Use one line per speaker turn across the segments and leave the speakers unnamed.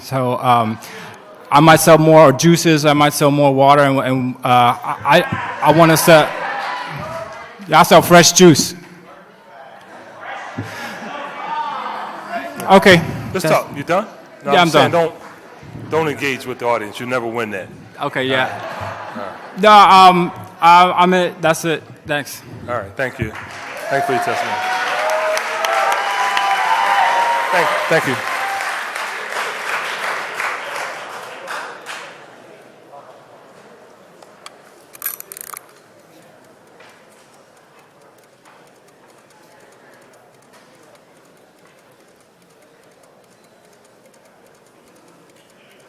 So um, I might sell more juices. I might sell more water, and, and uh, I I want to sell. Yeah, I sell fresh juice. Okay.
Let's talk. You done? No,
Yeah, I'm
saying
done.
Don't, don't engage with the audience. You never win that.
Okay. Yeah. No. Um. I, I'm it. That's it. Thanks.
All right. Thank you. Thanks for your testimony. Thank, thank you.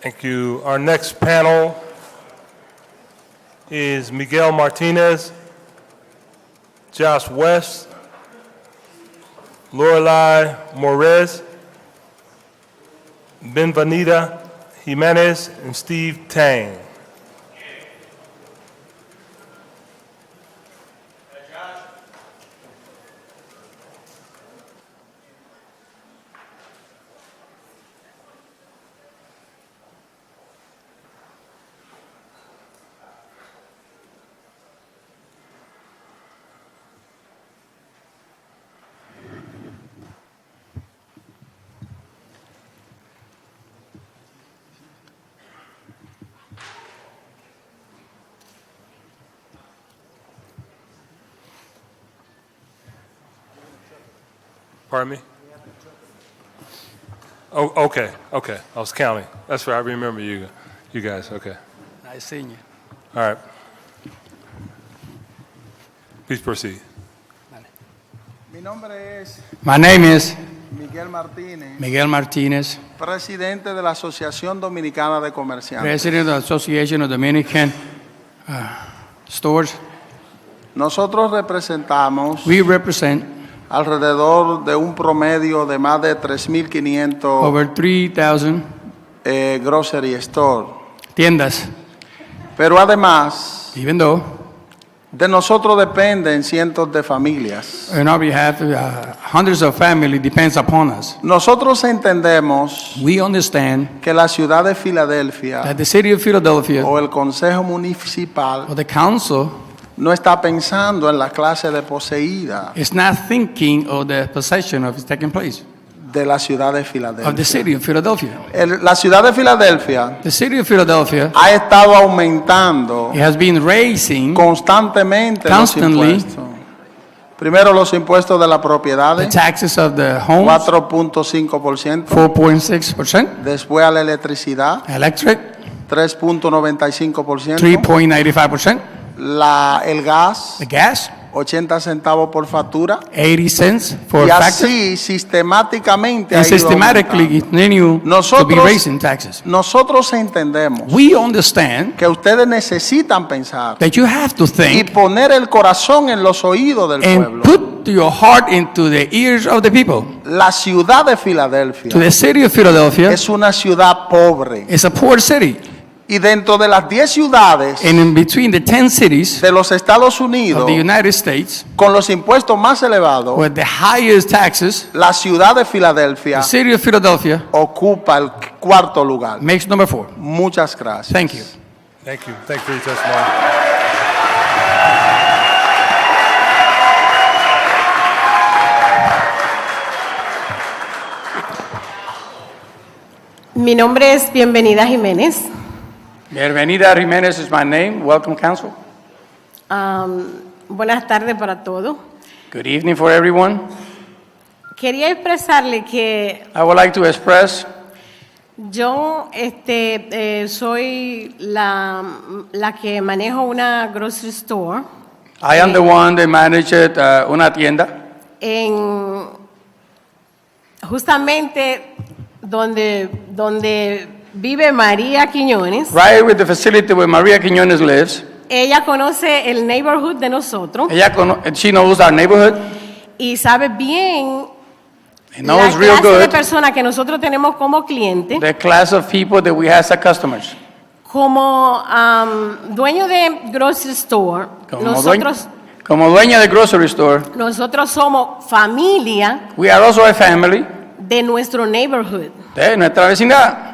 Thank you. Our next panel is Miguel Martinez, Josh West, Lorelai Morez, Benvenida Jimenez, and Steve Tang. Pardon me? Oh, okay, okay. I was counting. That's right. I remember you, you guys. Okay.
Nice seeing you.
All right. Please proceed.
Mi nombre es
My name is
Miguel Martínez,
Miguel Martinez,
presidente de la Asociación Dominicana de Comerciantes.
President of the Association of Dominican uh, Stores.
Nosotros representamos
We represent
alrededor de un promedio de más de 3.500
over 3,000
eh, grocery store.
tiendas,
Pero además,
even though
de nosotros dependen cientos de familias.
on our behalf, uh, hundreds of family depends upon us.
Nosotros entendemos
We understand
que la ciudad de Filadelfia
that the city of Philadelphia
o el Consejo Municipal
or the council
no está pensando en la clase de poseída
is not thinking of the possession of is taking place
de la ciudad de
of the
Filadelfia.
city of Philadelphia.
El- la ciudad de Filadelfia
The city of Philadelphia
ha estado aumentando
it has been raising
constantemente los
Constantly.
impuestos. Primero los impuestos de la propiedad,
the taxes of the homes
4.5%.
4.6%,
Después a la electricidad,
electric
3.95%.
3.95%,
La, el gas,
the gas
80 centavos por factura.
80 cents for
Y
factor,
así sistemáticamente ha
and
ido
systematically
aumentando.
continue to be
Nosotros-
raising taxes.
Nosotros entendemos
We understand
que ustedes necesitan pensar
that you have to
y
think
poner el corazón en los oídos del
and
pueblo.
put your heart into the ears of the people.
La ciudad de
To
Filadelfia
the city of Philadelphia
es una ciudad pobre
is a poor city,
y dentro de las 10 ciudades
and in between the 10 cities
de los Estados
of
Unidos
the United States
con los impuestos más elevados,
with the highest taxes,
la ciudad de Filadelfia
the city of Philadelphia
ocupa el cuarto lugar.
makes number four.
Muchas gracias.
Thank you.
Thank you. Thank you for your testimony.
Mi nombre es Bienvenida Jiménez.
Bienvenida Jimenez is my name. Welcome, council.
Am, buenas tardes para todos.
Good evening for everyone.
Quería expresarle que
I would like to express
yo este, eh, soy la, la que manejo una grocery store
I am the one that managed uh, una tienda
en justamente donde, donde vive María Quiñones.
right with the facility where Maria Quiñones lives.
Ella conoce el neighborhood de nosotros
Ella cono- she knows our neighborhood.
y sabe bien
She knows
la
real
clase de
good
personas que nosotros tenemos como clientes.
the class of people that we have as customers.
Como am, dueño de grocery store,
Como, dueño,
nosotros,
como dueña de grocery store,
nosotros somos familia
we are also a family
de nuestro neighborhood.
de nuestra vecindad.